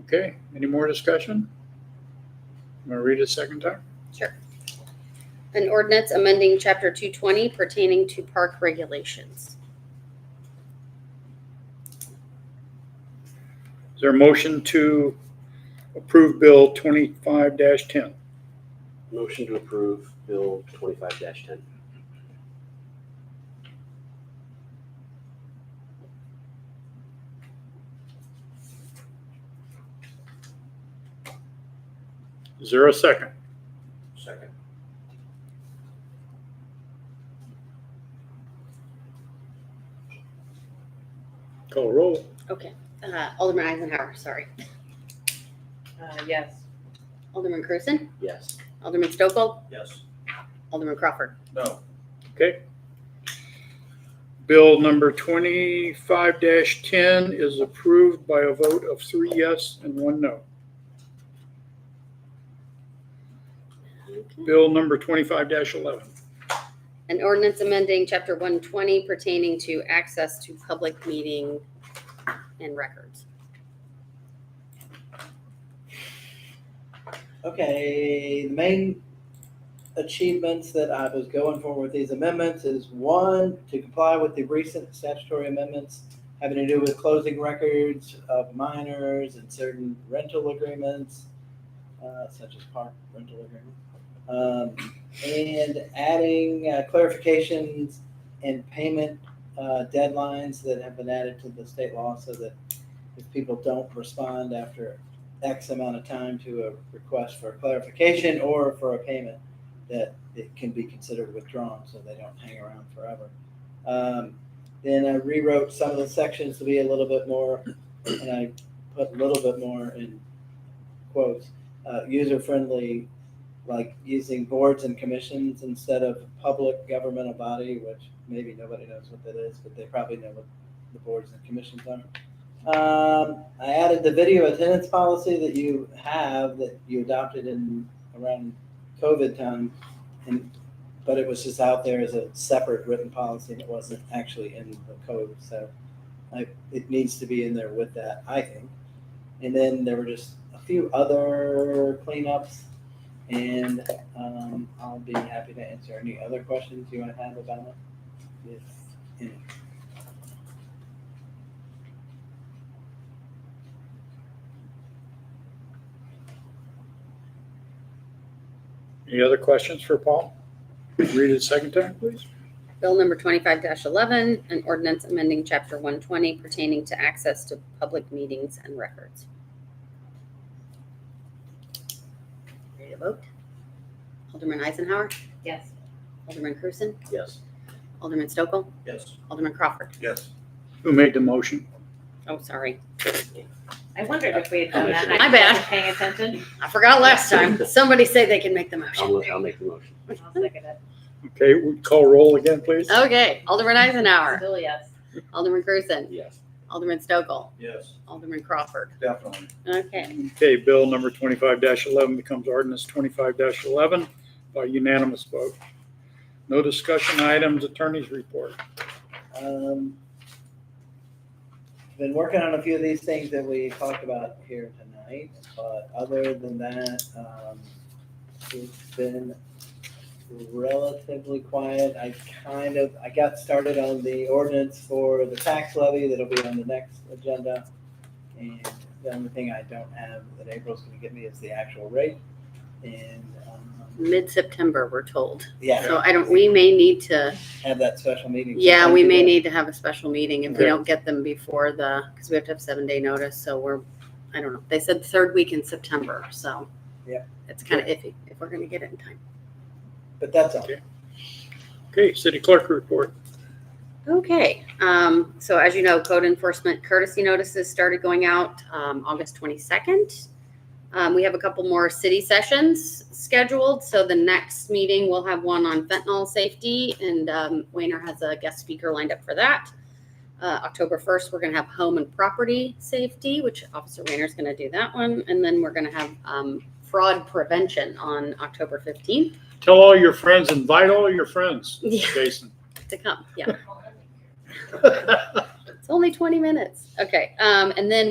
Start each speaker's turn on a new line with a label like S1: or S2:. S1: Okay, any more discussion? Want to read it a second time?
S2: Sure. An ordinance amending chapter two twenty pertaining to park regulations.
S1: Is there a motion to approve Bill twenty-five ten?
S3: Motion to approve Bill twenty-five ten.
S1: Is there a second?
S3: Second.
S1: Call roll.
S2: Okay, uh, Alderman Eisenhower, sorry.
S4: Uh, yes.
S2: Alderman Cruzen,
S3: Yes.
S2: Alderman Stokel,
S3: Yes.
S2: Alderman Crawford.
S3: No.
S1: Okay. Bill number twenty-five ten is approved by a vote of three yes and one no.
S2: Okay.
S1: Bill number twenty-five eleven.
S2: An ordinance amending chapter one twenty pertaining to access to public meeting and records.
S4: Okay, the main achievements that I was going for with these amendments is one, to comply with the recent statutory amendments having to do with closing records of minors and certain rental agreements, uh, such as park rental agreements. Um, and adding uh, clarifications and payment, uh, deadlines that have been added to the state law so that if people don't respond after X amount of time to a request for clarification or for a payment, that it can be considered withdrawn, so they don't hang around forever. Um, Then I rewrote some of the sections to be a little bit more, and I put a little bit more in quotes, uh, user-friendly, like using boards and commissions instead of public governmental body, which maybe nobody knows what that is, but they probably know what the boards and commissions are. Um, I added the video attendance policy that you have that you adopted in around COVID time, and but it was just out there as a separate written policy, and it wasn't actually in the code, so I, it needs to be in there with that, I think. And then there were just a few other cleanups, and um, I'll be happy to answer any other questions you might have about it. If any.
S1: Any other questions for Paul? Read it a second time, please.
S2: Bill number twenty-five eleven, an ordinance amending chapter one twenty pertaining to access to public meetings and records. Ready to vote? Alderman Eisenhower,
S5: Yes.
S2: Alderman Cruzen,
S3: Yes.
S2: Alderman Stokel,
S3: Yes.
S2: Alderman Crawford.
S3: Yes.
S1: Who made the motion?
S2: Oh, sorry.
S5: I wondered if we had done that.
S2: My bad.
S5: I wasn't Paying attention.
S2: I forgot last time. Somebody say they can make the motion.
S3: I'll, I'll make the motion.
S5: I'll second it.
S1: Okay, we call roll again, please.
S2: Uh, Okay, Alderman Eisenhower,
S5: Still yes.
S2: Alderman Cruzen,
S3: Yes.
S2: Alderman Stokel,
S3: Yes.
S2: Alderman Crawford.
S3: Definitely.
S2: Okay,
S1: Okay, bill number twenty-five eleven becomes ordinance twenty-five eleven by unanimous vote. No discussion items, attorney's report.
S4: Um, been working on a few of these things that we talked about here tonight, but other than that, um, it's been relatively quiet. I kind of, I got started on the ordinance for the tax levy that'll be on the next agenda. And the only thing I don't have that April's gonna give me is the actual rate. And, um,
S2: mid-September, we're told.
S4: yeah,
S2: So I don't, we may need to
S4: have that special meeting.
S2: Yeah, we may need to have a special meeting if we
S1: Okay.
S2: don't get them before the, because we have to have seven day notice, so we're, I don't know. They said third week in September, so.
S4: Yeah.
S2: It's kind of iffy if we're gonna get it in time.
S4: But that's all.
S1: Okay, city clerk report.
S2: Okay, um, so as you know, code enforcement courtesy notices started going out, um, August twenty-second. Um, we have a couple more city sessions scheduled, so the next meeting, we'll have one on fentanyl safety, and, um, Wayner has a guest speaker lined up for that. Uh, October first, we're gonna have home and property safety, which Officer Wayner's gonna do that one, and then we're gonna have, um, fraud prevention on October fifteenth.
S1: Tell all your friends, invite all your friends,
S2: Yeah,
S1: Jason.
S2: to come, yeah. It's only 20 minutes. Okay. Um, and then